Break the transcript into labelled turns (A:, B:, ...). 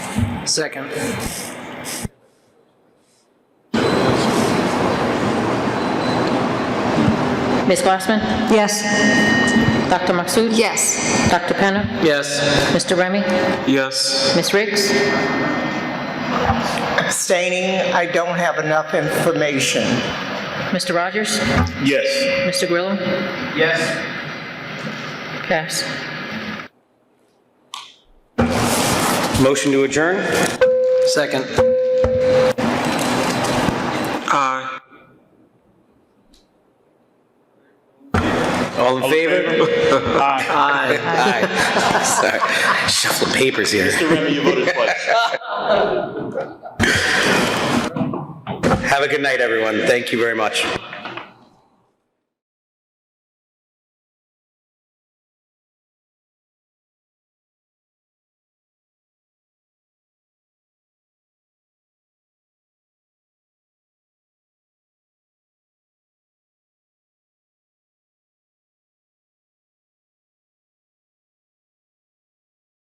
A: Second.
B: Ms. Glassman?
C: Yes.
B: Dr. Maxut?
C: Yes.
B: Dr. Penna?
A: Yes.
B: Mr. Remy?
A: Yes.
B: Ms. Riggs?
D: abstaining, I don't have enough information.
B: Mr. Rogers?
E: Yes.
B: Mr. Grillo?
A: Yes.
B: Pass.
E: Motion to adjourn?
A: Second. Aye.
E: All in favor?
A: Aye.
E: Aye. Sorry. Shuffle the papers here.
F: Mr. Remy, you voted twice.
E: Have a good night, everyone. Thank you very much.